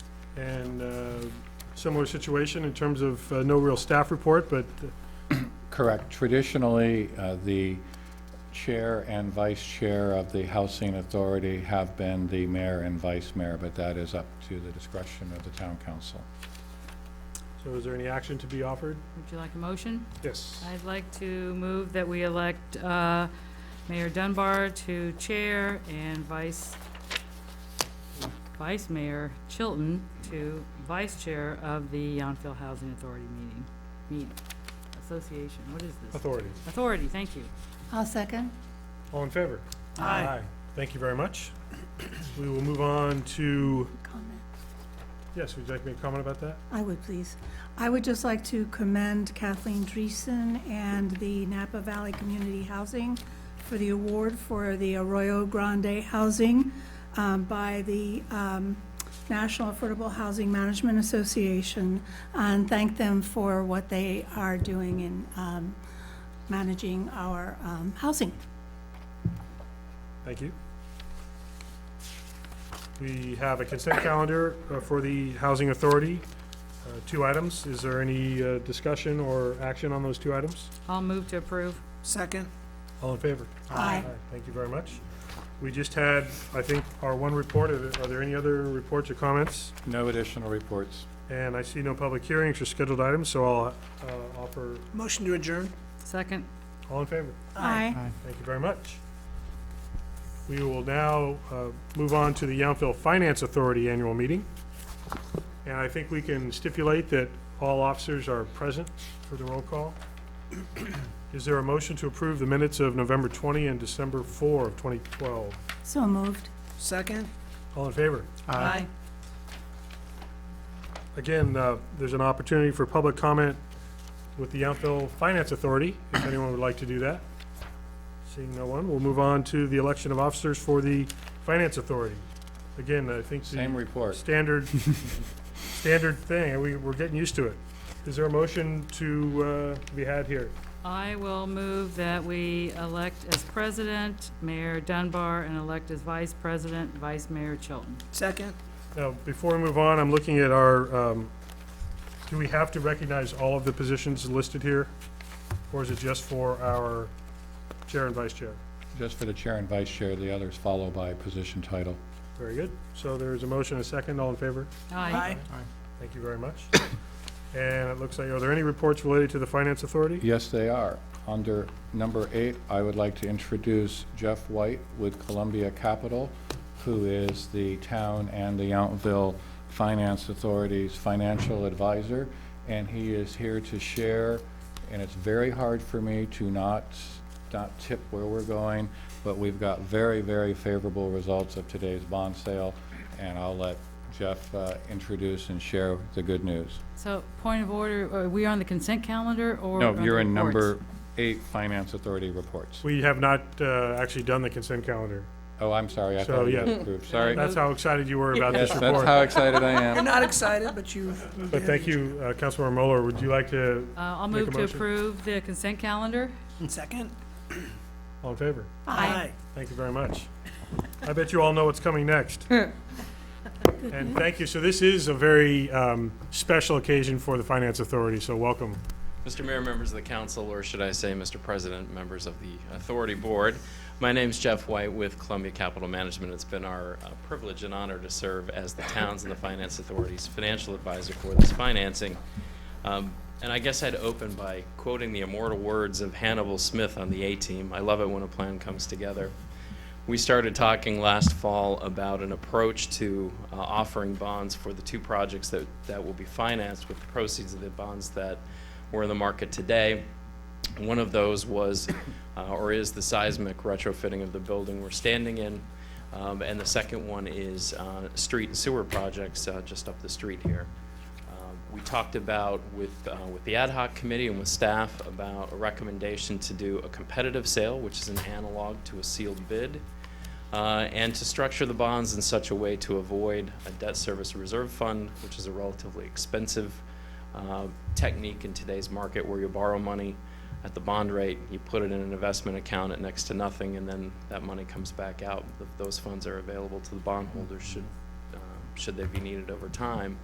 And uh, similar situation in terms of uh, no real staff report, but Correct. Traditionally, uh, the chair and vice chair of the housing authority have been the mayor and vice mayor, but that is up to the discretion of the town council. so is there any action to be offered? Would you like a motion? Yes. I'd like to move that we elect uh, Mayor Dunbar to chair and Vice, Vice Mayor Chilton to vice chair of the Yountville Housing Authority meeting, meet, association, what is this? Authority. Authority, thank you. I'll second. All in favor? Aye. Thank you very much. We will move on to, Comment. yes, would you like to make a comment about that? I would, please. I would just like to commend Kathleen Dreesen and the Napa Valley Community Housing for the award for the Arroyo Grande Housing um, by the um, National Affordable Housing Management Association, and thank them for what they are doing in um, managing our um, housing. Thank you. We have a consent calendar uh, for the Housing Authority, uh, two items. Is there any uh, discussion or action on those two items? I'll move to approve. Second. All in favor? Aye. Thank you very much. We just had, I think, our one report. Are there- are there any other reports or comments? No additional reports. And I see no public hearings or scheduled items, so I'll uh, offer, Motion to adjourn. Second, all in favor? Aye. Thank you very much. We will now uh, move on to the Yountville Finance Authority Annual Meeting. And I think we can stipulate that all officers are present for the roll call. Is there a motion to approve the minutes of November 20 and December 4 of 2012? So moved. Second. All in favor? aye. Again, uh, there's an opportunity for public comment with the Yountville Finance Authority, if anyone would like to do that. Seeing no one, we'll move on to the election of officers for the Finance Authority. Again, I think Same the report. standard, standard thing, and we, we're getting used to it. Is there a motion to uh, be had here? I will move that we elect as president Mayor Dunbar and elect as vice president Vice Mayor Chilton. Second. Now, before we move on, I'm looking at our, um, do we have to recognize all of the positions listed here? Or is it just for our chair and vice chair? Just for the chair and vice chair, the others follow by position title. Very good. So there's a motion, and a second, all in favor? Aye. Thank you very much. And it looks like, are there any reports related to the Finance Authority? Yes, they are. Under number eight, I would like to introduce Jeff White with Columbia Capital, who is the town and the Yountville Finance Authority's financial advisor, and he is here to share, and it's very hard for me to not, not tip where we're going, but we've got very, very favorable results of today's bond sale, and I'll let Jeff uh, introduce and share the good news. So, point of order, are we on the consent calendar or? on No, the you're in reports? number eight, Finance Authority reports. We have not uh, actually done the consent calendar. Oh, I'm sorry, I So, thought you yeah. just approved, sorry. That's how excited you were about this Yes, that's report. how excited I You're am. not excited, but you. But thank you, uh, Councilmember Mueller. Would you like to, Uh, I'll Make a move to motion. approve the consent calendar. Second. all in favor? Aye. Thank you very much. I bet you all know what's coming next. And thank you. So this is a very um, special occasion for the Finance Authority, so welcome. Mr. Mayor, members of the council, or should I say, Mr. President, members of the authority board, my name's Jeff White with Columbia Capital Management. It's been our uh, privilege and honor to serve as the town's and the finance authority's financial advisor for this financing. Um, And I guess I'd open by quoting the immortal words of Hannibal Smith on the A-Team. I love it when a plan comes together. We started talking last fall about an approach to uh, offering bonds for the two projects that, that will be financed with the proceeds of the bonds that were in the market today. One of those was, uh, or is the seismic retrofitting of the building we're standing in. Um, And the second one is uh, street and sewer projects uh, just up the street here. Um, We talked about with, uh, with the ad hoc committee and with staff about a recommendation to do a competitive sale, which is an analog to a sealed bid, uh, and to structure the bonds in such a way to avoid a debt service reserve fund, which is a relatively expensive uh, technique in today's market where you borrow money at the bond rate, you put it in an investment account at next to nothing, and then that money comes back out. Th- Those funds are available to the bondholders should, uh, should they be needed over time.